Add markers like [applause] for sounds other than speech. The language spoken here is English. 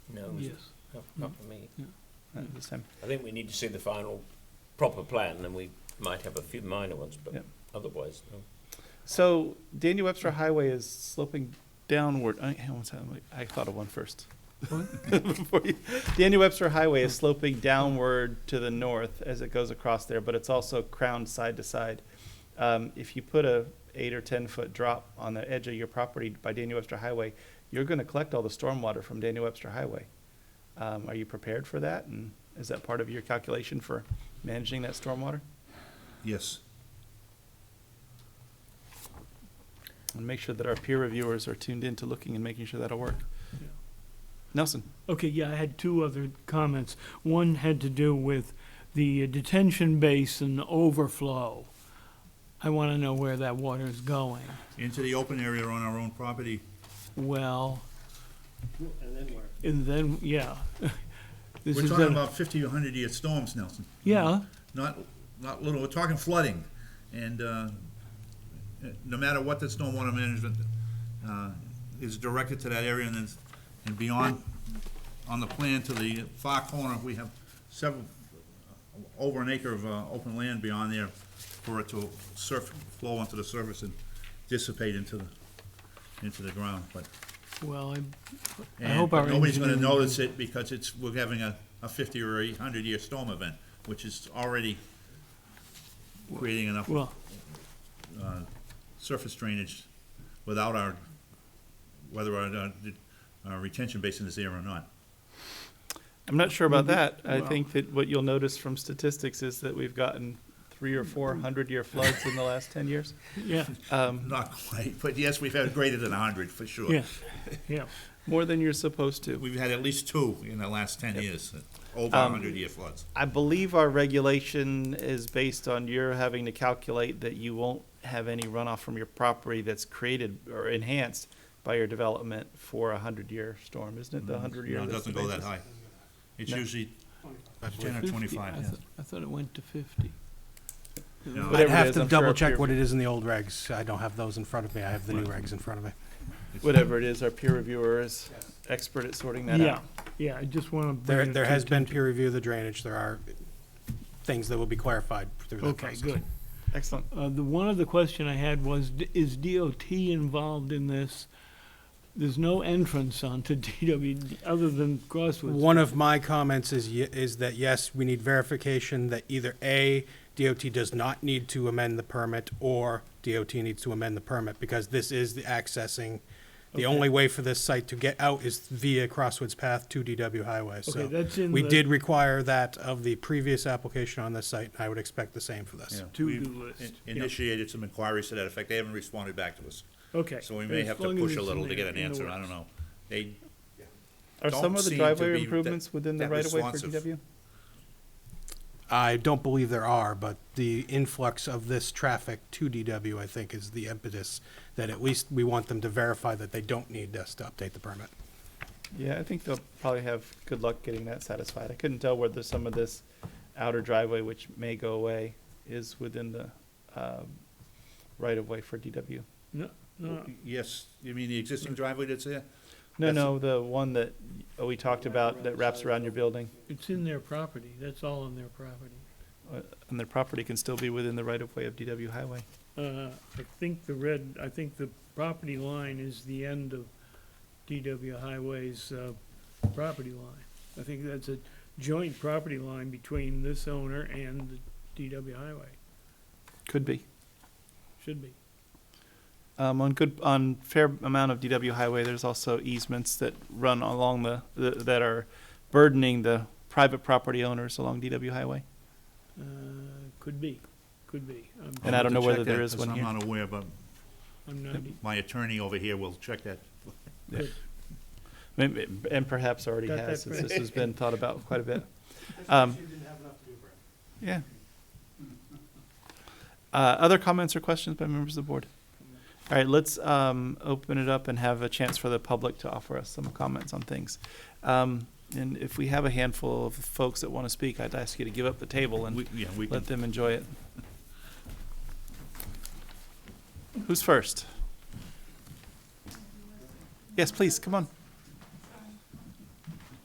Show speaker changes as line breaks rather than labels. Yes.
Not, not for me.
No, Uh, the same.
I think we need to see the final proper plan, and we might have a few minor ones,
Yeah.
but otherwise, no.
So Daniel Webster Highway is sloping downward. I, hang on one second, wait, I thought of one first. Before you- Daniel Webster Highway is sloping downward to the north as it goes across there, but it's also crowned side to side. Um, if you put a eight or ten foot drop on the edge of your property by Daniel Webster Highway, you're going to collect all the stormwater from Daniel Webster Highway. Um, are you prepared for that? And is that part of your calculation for managing that stormwater?
Yes.
And make sure that our peer reviewers are tuned in to looking and making sure that'll work.
Yeah.
Nelson?
Okay, yeah, I had two other comments. One had to do with the detention basin overflow. I want to know where that water is going.
into the open area on our own property.
Well,
And then where?
and then, yeah. [laughs] This
We're
is
talking
a-
about fifty, hundred year storms, Nelson.
Yeah,
Not, not little, we're talking flooding. And, uh, no matter what the stormwater management, uh, is directed to that area and then, and beyond, on the plan to the far corner, we have several, over an acre of, uh, open land beyond there for it to surf, flow onto the surface and dissipate into the, into the ground, but
well, I I
And
hope our
nobody's gonna
engineering-
notice it because it's, we're having a, a fifty or a hundred year storm event, which is already creating enough
well,
surface drainage without our, whether our, uh, our retention basin is there or not.
I'm not sure about that. I think that what you'll notice from statistics is that we've gotten three or four hundred year floods in the last ten years.
[laughs]
yeah,
Um,
Not quite, but yes, we've had greater than a hundred for sure.
yeah, yeah.
more than you're supposed to.
We've had at least two in the last ten years, over
Um,
a hundred year floods.
I believe our regulation is based on your having to calculate that you won't have any runoff from your property that's created or enhanced by your development for a hundred year storm, isn't it? The hundred year.
No, it
that's the
doesn't go that
basis?
high. It's
No.
usually ten or
50.
twenty-five,
I
yeah.
thought- I thought it went to fifty.
No,
Whatever
I'd
it
have
is,
to
I'm sure
double
our peer-
check what it is in the old regs. I don't have those in front of me. I have the new regs in front of me.
it's-
Whatever it is, our peer reviewer is expert at sorting that
Yeah,
out.
yeah, I just want to bring
There,
it
there
to-
has been peer review of the drainage. There are things that will be clarified through that
Okay,
process.
good.
Excellent.
Uh, the one other question I had was, d- is DOT involved in this? There's no entrance [laughs] onto DW other than Crosswoods.
One of my comments is, ye- is that yes, we need verification that either A, DOT does not need to amend the permit, or DOT needs to amend the permit, because this is the accessing. The only way for this site to get out is via Crosswoods Path to DW Highway, so.
Okay, that's in
We
the-
did require that of the previous application on this site, and I would expect the same for this.
Yeah.
To-do
We've
list.
in-
Yeah.
Initiated some inquiries to that effect. They haven't responded back to us.
Okay.
So we may
As
have
long
to
as
push
it's
a
in
little to
there,
get an
in the
answer. I
works.
don't know. They,
Are
don't
some of the
seem to be
driveway
that-
improvements within the
that
right of way for
responsive.
DW?
I don't believe there are, but the influx of this traffic to DW, I think, is the impetus that at least we want them to verify that they don't need us to update the permit.
Yeah, I think they'll probably have good luck getting that satisfied. I couldn't tell whether some of this outer driveway, which may go away, is within the um, right of way for DW.
No, no,
yes, you mean the existing driveway that's there?
No,
That's-
no, the one that uh, we talked about that wraps around your building
it's in their property. That's all in their property.
uh, and the property can still be within the right of way of DW Highway.
Uh, I think the red, I think the property line is the end of DW Highway's, uh, property line. I think that's a joint property line between this owner and the DW Highway,
Could be.
should be.
Um, on good, on fair amount of DW highway, there's also easements that run along the, th- that are burdening the private property owners along DW highway.
Uh, could be, could be. I'm-
And
I'll
I don't
have to
know whether
check
there
that
is
'cause
one here.
I'm not aware, but
I'm not,
my attorney over here will check that.
Maybe, and perhaps already
Got
has,
that
since this has been thought about quite
[laughs]
a bit. Um, Yeah. [laughs] Uh, other comments or questions by members of the board? All right, let's, um, open it up and have a chance for the public to offer us some comments on things. Um, and if we have a handful of folks that want to speak, I'd ask you to give up the table and
We- Yeah, we can,
let them enjoy it. Who's first? Yes, please, come on.